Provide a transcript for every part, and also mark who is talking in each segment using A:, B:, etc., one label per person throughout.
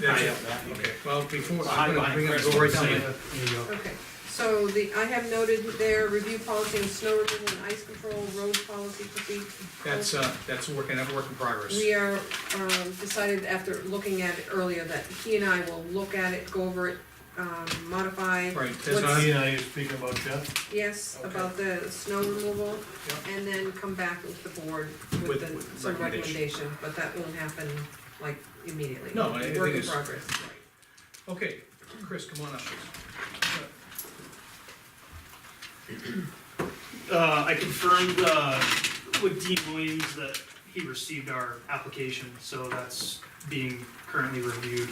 A: That's
B: I
A: it.
B: have that.
A: Okay, well, before, I'm
B: Behind-
A: gonna, we're gonna
B: behind
A: go right down
B: Crest,
A: there.
B: same.
A: There you go.
C: Okay, so the, I have noted there, review policy on snow removal and ice control, road policy procedure.
A: That's, uh, that's a work, another work in progress.
C: We are, um, decided after looking at it earlier that he and I will look at it, go over it, um, modify.
A: Right, there's
C: what's-
A: not,
B: He and I are speaking about Jeff,
C: Yes,
B: Okay.
C: about the snow removal,
A: Yeah.
C: and then come back with the board
A: With-
C: with the,
A: with
C: some
A: recommendation.
C: recommendation, but that won't happen like immediately.
A: No, I- I
C: Work
A: think
C: in
A: it's-
C: progress.
A: okay, Chris, come on up.
D: Uh, I confirmed, uh, with Dean Williams that he received our application, so that's being currently reviewed.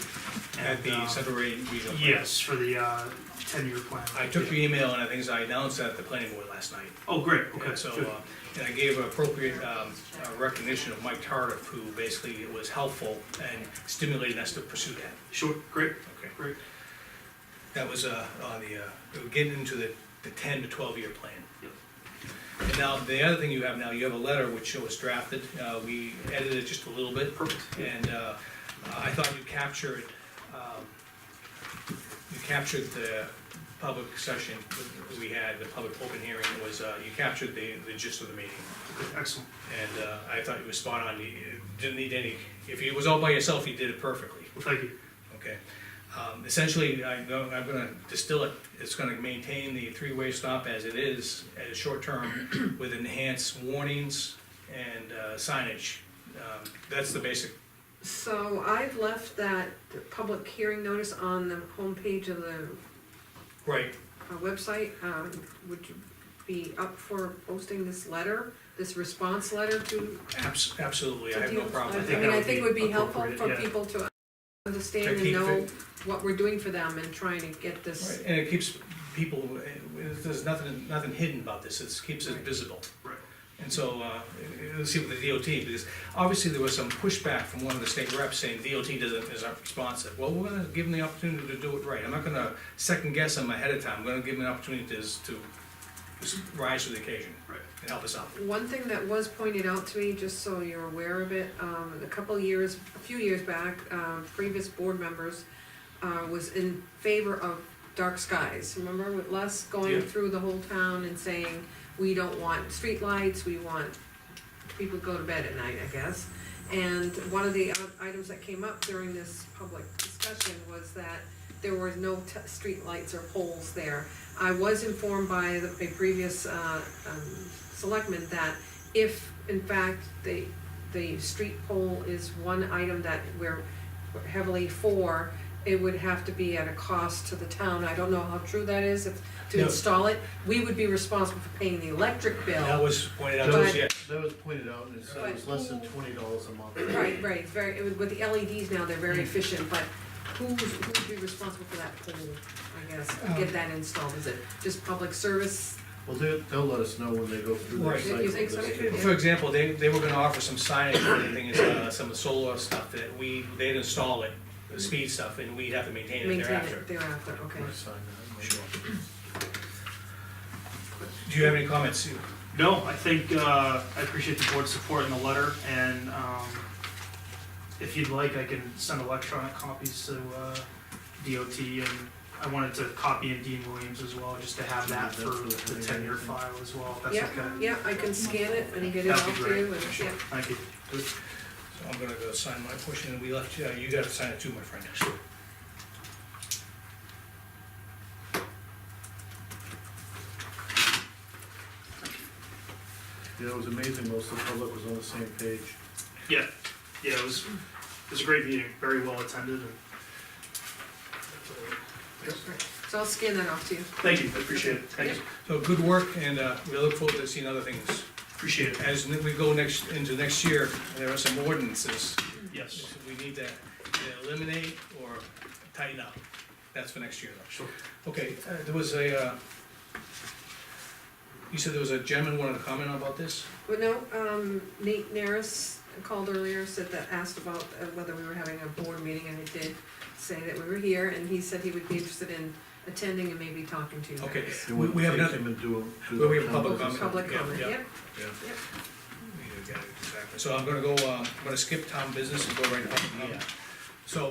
A: At
D: and,
A: the
D: uh,
A: Central Regional. Plan.
D: Yes, for the, uh, ten-year plan.
A: I took your email and I think I announced that at the planning board last night.
D: Oh, great, okay,
A: And so,
D: good.
A: uh, and I gave appropriate um, uh, recognition of Mike Tardif, who basically was helpful and stimulated us to pursue that.
D: Sure, great,
A: Okay,
D: great.
A: That was uh, on the, uh, we're getting into the the 10 to 12-year plan.
D: Yep.
A: And now, the other thing you have now, you have a letter which was drafted. Uh, We edited it just a little bit.
D: Perfect.
A: And uh, I thought you captured, um, you captured the public session that we had, the public open hearing was, uh, you captured the the gist of the meeting.
D: Okay, Excellent.
A: And uh, I thought you were spot on, you you didn't need any, if it was all by yourself, you did it perfectly,
D: Well, thank you.
A: okay? Um, Essentially, I go- I'm gonna distill it, it's gonna maintain the three-way stop as it is, as short-term, with enhanced warnings and uh, signage. Um, That's the basic
C: So I've left that public hearing notice on the homepage of the
A: Right,
C: uh, website, um, would you be up for posting this letter, this response letter to?
A: abs- absolutely, I
C: to
A: have no
C: deal-
A: problem with
C: I
A: that.
C: mean, I
D: would
C: think
D: be
C: it would be helpful
D: appropriate,
C: for
D: yeah.
C: people to
A: To
C: understand and
A: keep
C: know
A: it-
C: what we're doing for them and trying to get this,
A: Right, And it keeps people, there's nothing, nothing hidden about this, it keeps it
C: Right.
A: visible.
D: Right.
A: And so, uh, let's see what the DOT, because obviously there was some pushback from one of the state reps saying DOT doesn't, is not responsive. Well, we're gonna give them the opportunity to do it right, I'm not gonna second guess them ahead of time, I'm gonna give them an opportunity to, to rise to the occasion
D: Right.
A: and help us out.
C: One thing that was pointed out to me, just so you're aware of it, um, a couple years, a few years back, um, previous board members, uh, was in favor of dark skies, remember with Les
A: Yeah.
C: going through the whole town and saying, we don't want streetlights, we want people to go to bed at night, I guess. And one of the i- items that came up during this public discussion was that there were no t- streetlights or poles there. I was informed by the- a previous uh, um, selectman that if, in fact, the, the street pole is one item that we're heavily for, it would have to be at a cost to the town. I don't know how true that is, if, to
A: No.
C: install it. We would be responsible for paying the electric bill.
A: That was pointed out, to us,
C: But-
A: yeah,
B: that was pointed out, and it said it was less than twenty dollars a month.
C: Right, right, it's very, with the LEDs now, they're very efficient, but who's, who'd be responsible for that pole, I guess, to
A: Um,
C: get that installed, is it just public service?
B: Well, they'll, they'll let us know when they go through their
A: Right.
B: cycle.
C: You think so?
B: this year.
A: For example, they, they were gonna offer some signage or anything, uh, some solar stuff that we, they'd install it, the speed stuff, and we'd have to maintain it
C: Maintain
A: thereafter.
C: it thereafter, okay.
B: Might sign that, might
A: Sure.
B: not.
A: Do you have any comments, Sue?
D: No, I think, uh, I appreciate the board's support in the letter, and, um, if you'd like, I can send electronic copies to, uh, DOT, and I wanted to copy in Dean Williams as well, just to have that for the ten-year file as well, if that's
C: Yeah,
D: okay.
C: yeah, I can scan it and get it
D: That'd
C: out
D: be
C: to
D: great.
C: you, and,
D: Sure.
C: yeah,
D: Thank you.
A: So I'm gonna go sign my portion, and we left, you- you gotta sign it too, my friend.
B: Yeah, it was amazing, most of the public was on the same page.
D: Yeah, yeah, it was, it was a great meeting, very well attended, and
C: Right. so I'll scan that off to you.
D: thank you, I appreciate it, thank you,
A: So good work, and, uh, we look forward to seeing other things.
D: appreciate it,
A: As we go next, into next year, there are some ordinances
D: yes,
A: we need to either eliminate or tighten up. That's for next year, though.
D: sure.
A: Okay, uh, there was a, uh, you said there was a gentleman wanted to comment about this?
C: But no, um, Nate Naris called earlier, said that, asked about uh, whether we were having a board meeting, and I did say that we were here, and he said he would be interested in attending and maybe talking to you
A: Okay.
C: guys.
B: They
A: We-
B: wouldn't
A: we have
B: take
A: another-
B: him and do him- do
A: Well, we
B: the
A: have public
B: numbers.
C: Public
A: Yeah,
C: comment,
A: yeah.
C: yep,
B: Yeah.
C: yep.
A: um, Yeah, exactly. So I'm gonna go, uh, I'm gonna skip town business and go right to public comment.